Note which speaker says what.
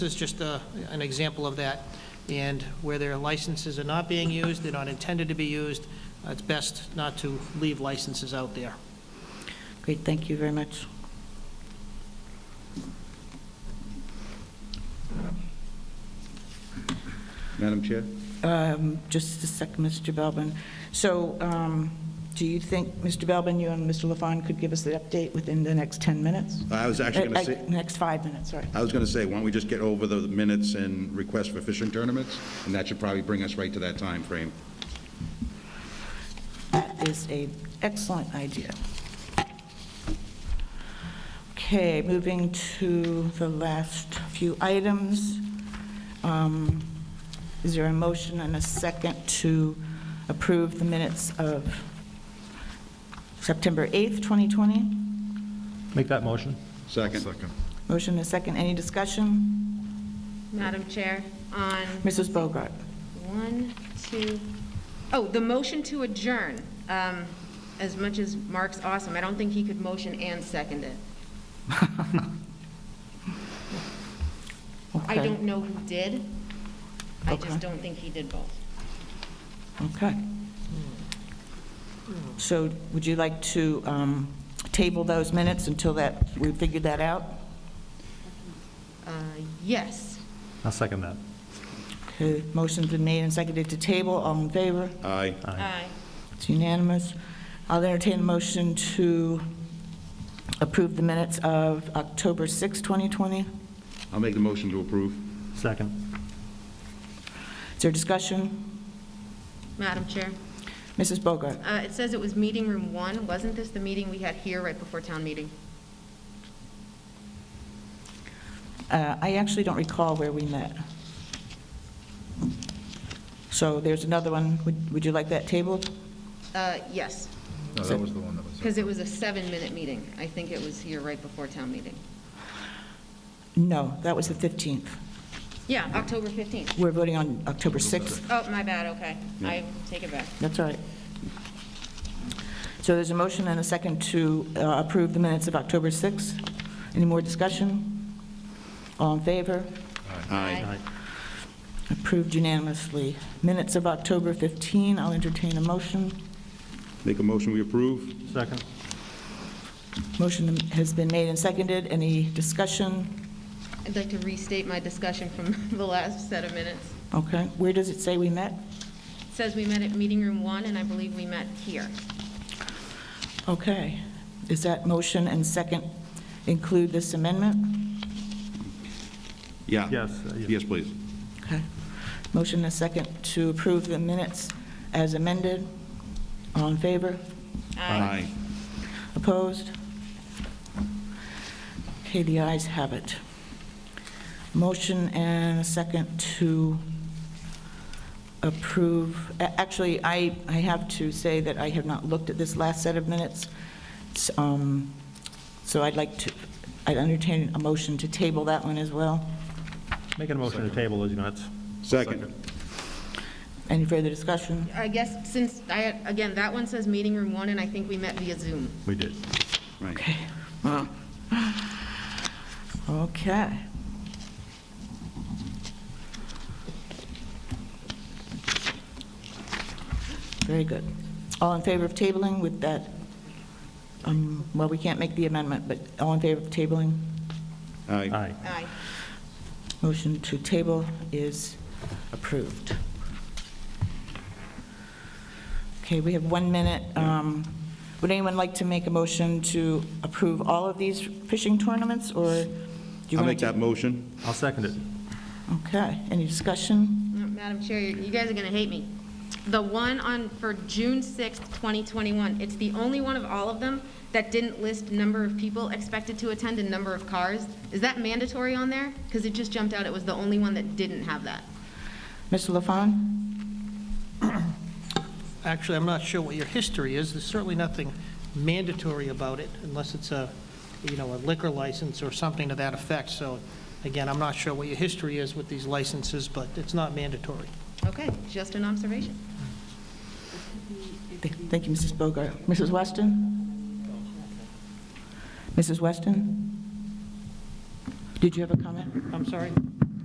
Speaker 1: This is just a- an example of that. And where their licenses are not being used, they're not intended to be used, uh, it's best not to leave licenses out there.
Speaker 2: Great, thank you very much.
Speaker 3: Madam Chair?
Speaker 2: Um, Just a sec, Mr. Belbin. So um, do you think, Mr. Belbin, you and Mr. LaFawn could give us the update within the next 10 minutes?
Speaker 3: I was actually
Speaker 2: Uh,
Speaker 3: going to
Speaker 2: uh,
Speaker 3: say,
Speaker 2: Next five minutes, sorry.
Speaker 3: I was going to say, why don't we just get over the minutes and requests for fishing tournaments? And that should probably bring us right to that time frame.
Speaker 2: That is a excellent idea. Okay, moving to the last few items. Um, Is there a motion and a second to approve the minutes of September 8th, 2020?
Speaker 4: Make that motion.
Speaker 3: Second?
Speaker 2: Motion and a second, any discussion?
Speaker 5: Madam Chair, on
Speaker 2: Mrs. Bogart?
Speaker 5: one, two, oh, the motion to adjourn. Um, As much as Mark's awesome, I don't think he could motion and second it. I
Speaker 2: Okay,
Speaker 5: don't know who did. I
Speaker 2: Okay.
Speaker 5: just don't think he did both.
Speaker 2: Okay. So would you like to um, table those minutes until that, we figure that out?
Speaker 5: Uh, Yes.
Speaker 4: I'll second that.
Speaker 2: Okay, motion's been made and seconded to table, all in favor?
Speaker 3: Aye.
Speaker 5: Aye.
Speaker 2: It's unanimous. I'll entertain a motion to approve the minutes of October 6, 2020.
Speaker 3: I'll make the motion to approve.
Speaker 4: Second.
Speaker 2: Is there discussion?
Speaker 5: Madam Chair,
Speaker 2: Mrs. Bogart?
Speaker 5: uh, it says it was meeting room one. Wasn't this the meeting we had here right before town meeting?
Speaker 2: Uh, I actually don't recall where we met. So there's another one. Would Would you like that tabled?
Speaker 5: Uh, Yes,
Speaker 6: No, that was the one that was.
Speaker 5: because it was a seven-minute meeting. I think it was here right before town meeting.
Speaker 2: No, that was the 15th.
Speaker 5: Yeah, October 15th.
Speaker 2: We're voting on October 6th.
Speaker 5: Oh, my bad, okay. I take it back.
Speaker 2: That's all right. So there's a motion and a second to uh, approve the minutes of October 6th. Any more discussion? All in favor?
Speaker 5: Aye.
Speaker 2: Approved unanimously. Minutes of October 15, I'll entertain a motion.
Speaker 3: Make a motion, we approve?
Speaker 4: Second.
Speaker 2: Motion has been made and seconded. Any discussion?
Speaker 5: I'd like to restate my discussion from the last set of minutes.
Speaker 2: Okay, where does it say we met?
Speaker 5: It says we met at meeting room one, and I believe we met here.
Speaker 2: Okay, is that motion and second include this amendment?
Speaker 3: Yeah.
Speaker 4: Yes, uh, yeah.
Speaker 3: Yes, please.
Speaker 2: Okay. Motion and second to approve the minutes as amended. All in favor?
Speaker 3: Aye.
Speaker 2: Opposed? Okay, the ayes have it. Motion and a second to approve, a- actually, I, I have to say that I have not looked at this last set of minutes, S- um, so I'd like to, I'd entertain a motion to table that one as well.
Speaker 4: Making a motion to table those minutes.
Speaker 3: Second?
Speaker 2: Any further discussion?
Speaker 5: Uh, I guess since, I, again, that one says meeting room one, and I think we met via Zoom.
Speaker 4: We did.
Speaker 3: Right.
Speaker 2: Okay. Okay. Very good. All in favor of tabling with that, um, well, we can't make the amendment, but all in favor of tabling?
Speaker 3: Aye.
Speaker 4: Aye.
Speaker 5: Aye.
Speaker 2: Motion to table is approved. Okay, we have one minute. Um, Would anyone like to make a motion to approve all of these fishing tournaments, or do you
Speaker 3: I'll
Speaker 2: want
Speaker 3: make
Speaker 2: to?
Speaker 3: that motion.
Speaker 4: I'll second it.
Speaker 2: Okay, any discussion?
Speaker 5: Madam Chair, you guys are going to hate me. The one on, for June 6th, 2021, it's the only one of all of them that didn't list number of people expected to attend and number of cars. Is that mandatory on there? Because it just jumped out, it was the only one that didn't have that.
Speaker 2: Mr. LaFawn?
Speaker 1: Actually, I'm not sure what your history is, there's certainly nothing mandatory about it, unless it's a, you know, a liquor license or something to that effect, so, again, I'm not sure what your history is with these licenses, but it's not mandatory.
Speaker 5: Okay, just an observation.
Speaker 2: Th- Thank you, Mrs. Bogart. Mrs. Weston? Mrs. Weston? Did you have a comment?
Speaker 1: I'm sorry?